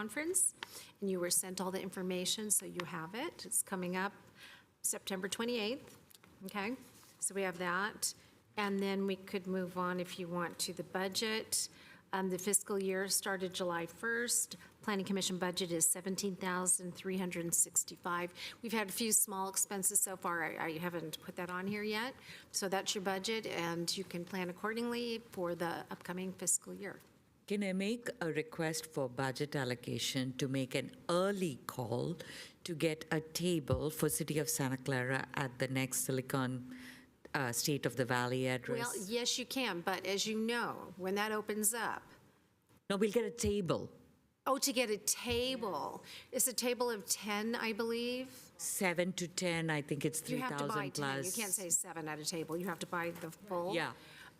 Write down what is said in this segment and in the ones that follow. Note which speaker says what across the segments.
Speaker 1: conference, and you were sent all the information, so you have it. It's coming up September 28th, okay? So we have that. And then we could move on, if you want, to the budget. Um, The fiscal year started July 1st. Planning Commission budget is 17,365. We've had a few small expenses so far. I- I haven't put that on here yet. So that's your budget, and you can plan accordingly for the upcoming fiscal year.
Speaker 2: Can I make a request for budget allocation to make an early call to get a table for City of Santa Clara at the next Silicon uh, State of the Valley
Speaker 1: Well,
Speaker 2: address?
Speaker 1: yes, you can, but as you know, when that opens up,
Speaker 2: No, we'll get a table,
Speaker 1: oh, to get a table, it's a table of 10, I believe.
Speaker 2: seven to 10, I think it's
Speaker 1: You have to buy 10,
Speaker 2: 3,000
Speaker 1: you
Speaker 2: plus.
Speaker 1: can't say seven at a table, you have to buy the full.
Speaker 2: Yeah.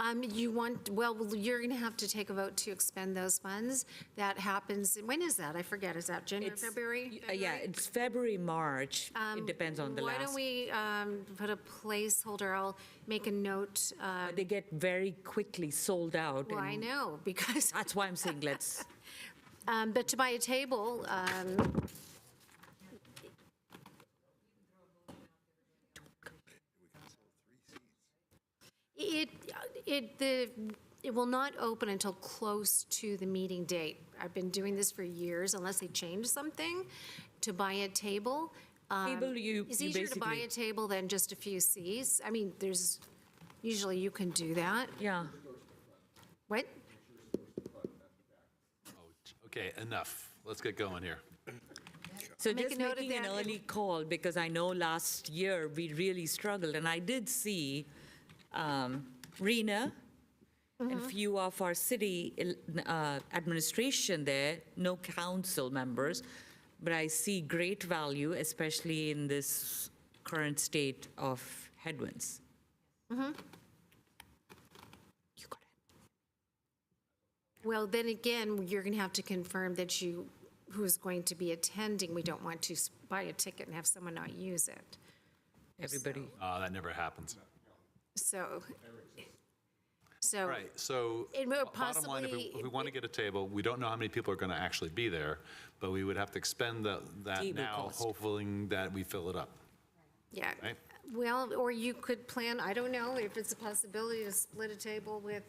Speaker 1: Um, You want, well, you're going to have to take a vote to expend those funds. That happens, when is that? I forget, is that January,
Speaker 2: It's-
Speaker 1: February? Um,
Speaker 2: y- uh, Yeah, it's February, March. It depends on the
Speaker 1: Why don't
Speaker 2: last.
Speaker 1: we um, put a placeholder, I'll make a note. uh,
Speaker 2: But They get very quickly sold out.
Speaker 1: Well, I
Speaker 2: and
Speaker 1: know, because
Speaker 2: That's why I'm saying let's,
Speaker 1: Um, But to buy a table, um, it, it, the, it will not open until close to the meeting date. I've been doing this for years, unless they change something, to buy a table. um,
Speaker 2: Table, you-
Speaker 1: It's
Speaker 2: you
Speaker 1: easier to buy
Speaker 2: basically-
Speaker 1: a table than just a few seats. I mean, there's, usually you can do that.
Speaker 2: yeah.
Speaker 1: What?
Speaker 3: Okay, enough. Let's get going here.
Speaker 2: So
Speaker 1: Make a
Speaker 2: just
Speaker 1: note of
Speaker 2: making an
Speaker 1: that and-
Speaker 2: early call, because I know last year we really struggled, and I did see um, Rena and few of our city el- uh, administration there, no council members, but I see great value, especially in this current state of headwinds. You got it.
Speaker 1: Well, then again, you're going to have to confirm that you, who's going to be attending, we don't want to s- buy a ticket and have someone not use it.
Speaker 2: Everybody,
Speaker 3: Uh, that never happens.
Speaker 1: So, so,
Speaker 3: All right, so
Speaker 1: It will
Speaker 3: bo- bottom line, if we,
Speaker 1: possibly-
Speaker 3: if we want to get a table, we don't know how many people are going to actually be there, but we would have to expend the, that
Speaker 2: Table
Speaker 3: now,
Speaker 2: cost.
Speaker 3: hoping that we fill it up.
Speaker 1: yeah.
Speaker 3: Right.
Speaker 1: Well, or you could plan, I don't know, if it's a possibility to split a table with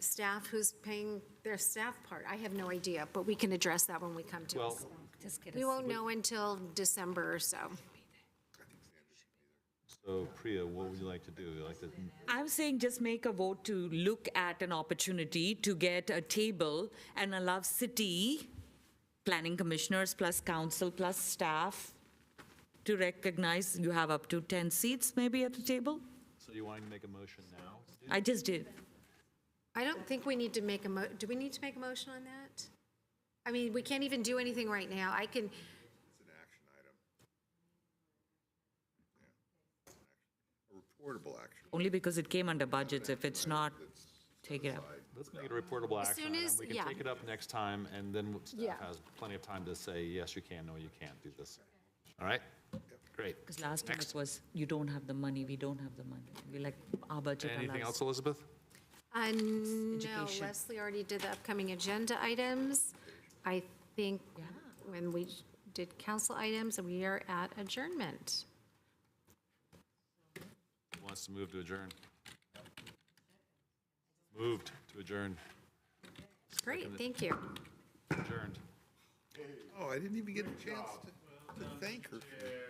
Speaker 1: staff who's paying their staff part. I have no idea, but we can address that when we come to
Speaker 3: Well,
Speaker 1: it. We won't know until December or so.
Speaker 3: so Priya, what would you like to do? You like to,
Speaker 2: I'm saying just make a vote to look at an opportunity to get a table and allow city planning commissioners plus council plus staff to recognize you have up to 10 seats maybe at the table?
Speaker 3: so you want to make a motion now?
Speaker 2: I just did.
Speaker 1: I don't think we need to make a mo, do we need to make a motion on that? I mean, we can't even do anything right now. I can,
Speaker 4: Portable action.
Speaker 2: Only because it came under budgets. If it's not, take it up.
Speaker 3: Let's make it a reportable
Speaker 1: As
Speaker 3: action.
Speaker 1: soon
Speaker 3: item.
Speaker 1: as-
Speaker 3: We can
Speaker 1: yeah.
Speaker 3: take it up next time, and then
Speaker 1: Yeah.
Speaker 3: staff has plenty of time to say, yes, you can, no, you can't do this. All right? Great.
Speaker 2: Because last time it
Speaker 3: Next.
Speaker 2: was, you don't have the money, we don't have the money. We like, our budget
Speaker 3: Anything else,
Speaker 2: allows.
Speaker 3: Elizabeth?
Speaker 1: uh, no,
Speaker 2: Education.
Speaker 1: Leslie already did the upcoming agenda items. I think when we did council items, we are at adjournment.
Speaker 3: Who Wants to move to adjourn? Moved to adjourn,
Speaker 1: Great, thank you.
Speaker 3: adjourned.
Speaker 4: Oh, I didn't even get a chance to, to thank her for